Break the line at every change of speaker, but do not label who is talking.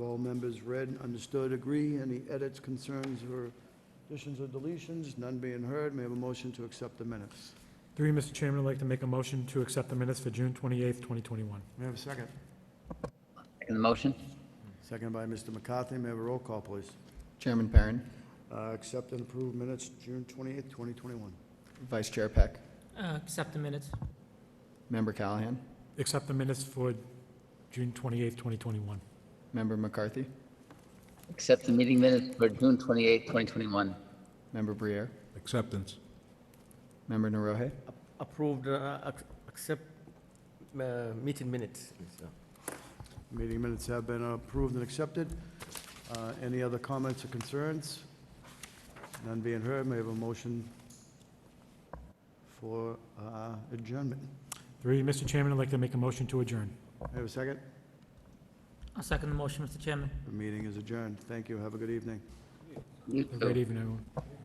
all members read, understood, agree. Any edits, concerns, or additions or deletions? None being heard, may I have a motion to accept the minutes?
Three, Mr. Chairman, I'd like to make a motion to accept the minutes for June 28th, 2021.
May I have a second?
Second the motion?
Second by Mr. McCarthy, may I have a roll call, please?
Chairman Perrin,
Uh, Accept and approve minutes, June 28th, 2021.
Vice Chair Peck,
Uh, Accept the minutes.
Member Callahan,
Accept the minutes for June 28th, 2021.
Member McCarthy,
Accept the meeting minutes for June 28, 2021.
Member Briere,
Acceptance.
Member Naroje,
Approved, uh, ac- accept uh, meeting minutes. So,
Meeting minutes have been approved and accepted. Uh, Any other comments or concerns? None being heard, may I have a motion for uh, adjournment?
Three, Mr. Chairman, I'd like to make a motion to adjourn.
May I have a second?
I'll second the motion, Mr. Chairman.
The meeting is adjourned. Thank you, have a good evening.
You
Have a
too.
great evening, everyone.